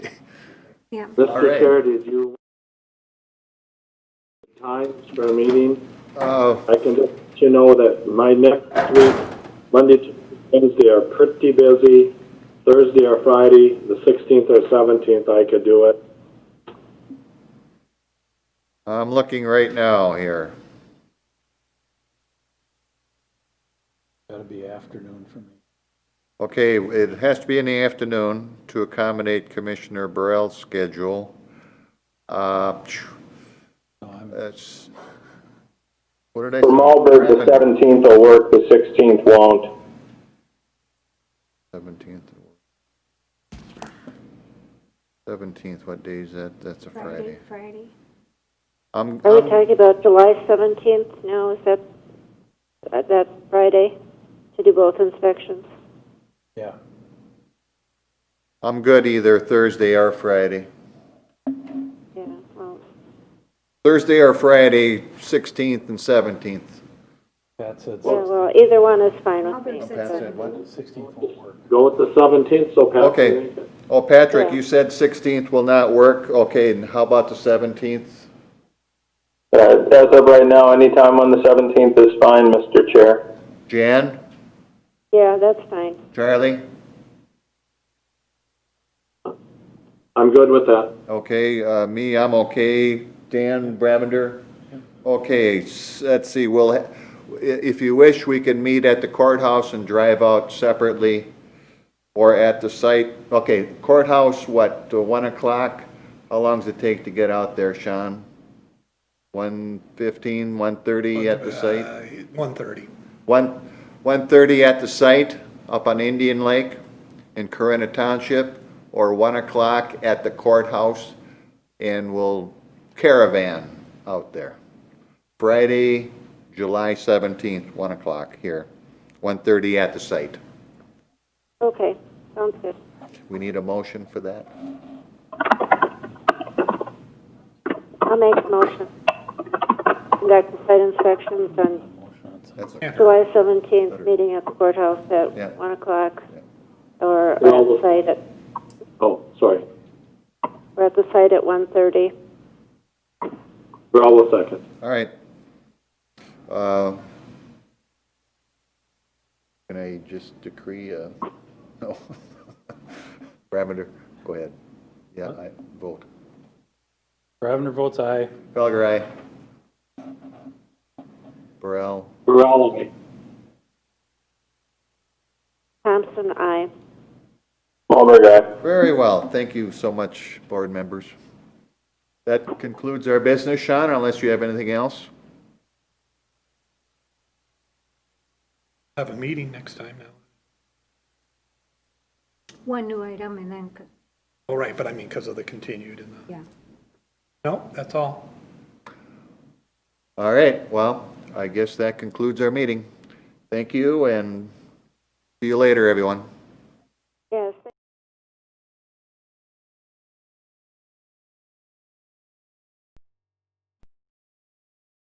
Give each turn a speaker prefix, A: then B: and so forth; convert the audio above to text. A: Yeah.
B: Let's
C: All
B: get
C: right.
B: started. If you times for a meeting,
D: Uh,
B: I can just let you know that my next week, Monday, Tuesday, Wednesday are pretty busy. Thursday or Friday, the 16th or 17th, I could do it.
D: I'm looking right now here.
E: Gotta be afternoon for me.
D: Okay, it has to be in the afternoon to accommodate Commissioner Burrell's schedule. Uh, phew,
E: No, I'm,
D: that's, what did I?
B: For Malberg, the 17th will work, the 16th won't.
D: Seventeenth. Seventeenth, what day is that? That's a Friday.
A: Friday.
D: I'm,
F: Are we
D: I'm-
F: talking about July 17th now? Is that, uh, that Friday to do both inspections?
E: yeah,
D: I'm good either Thursday or Friday.
F: Yeah, well,
D: Thursday or Friday, sixteenth and seventeenth.
E: Pat said
F: yeah, well, either one is fine
A: I'll
F: with
A: bring
F: me.
A: six.
D: said what?
E: sixteenth won't work.
B: Go with the 17th, so Pat
D: Okay.
B: can make it.
D: Oh, Patrick,
F: Yeah.
D: you said sixteenth will not work. Okay, and how about the seventeenth?
B: Uh, As of right now, any time on the 17th is fine, Mr. Chair.
D: Jan,
F: Yeah, that's fine.
D: Charlie?
B: I'm good with that.
D: Okay, uh, me, I'm okay. Dan Bravender? Okay, s- let's see, we'll, ha- i- if you wish, we can meet at the courthouse and drive out separately or at the site. Okay, courthouse, what, to 1 o'clock? How long does it take to get out there, Sean? 1:15, 1:30 at the site?
G: One thirty.
D: 1, 1:30 at the site up on Indian Lake in Corinna Township, or 1 o'clock at the courthouse, and we'll caravan out there. Friday, July 17th, 1 o'clock here, 1:30 at the site.
F: Okay, sounds good.
D: We need a motion for that?
F: I'll make a motion. Conduct the site inspections on
E: Motion on second.
D: That's
F: July 17th, meeting at the courthouse
D: Yeah.
F: at 1 o'clock,
D: Yeah.
F: or at
B: Yeah, I'll
F: the
B: look.
F: site at,
B: Oh, sorry.
F: or at the site at 1:30.
B: Raul second.
D: All right. Uh, Can I just decree, uh, no? Bravender, go ahead. Yeah, I vote.
E: Bravender votes aye.
D: Felger, aye. Burrell,
B: Raul, aye.
F: Thompson, aye.
B: Malberg, aye.
D: very well. Thank you so much, board members. That concludes our business, Sean, unless you have anything else.
G: Have a meeting next time now.
A: One new item and then, c-
G: Oh, right, but I mean, because of the continued and the,
A: yeah.
G: no, that's all.
D: All right, well, I guess that concludes our meeting. Thank you, and see you later, everyone.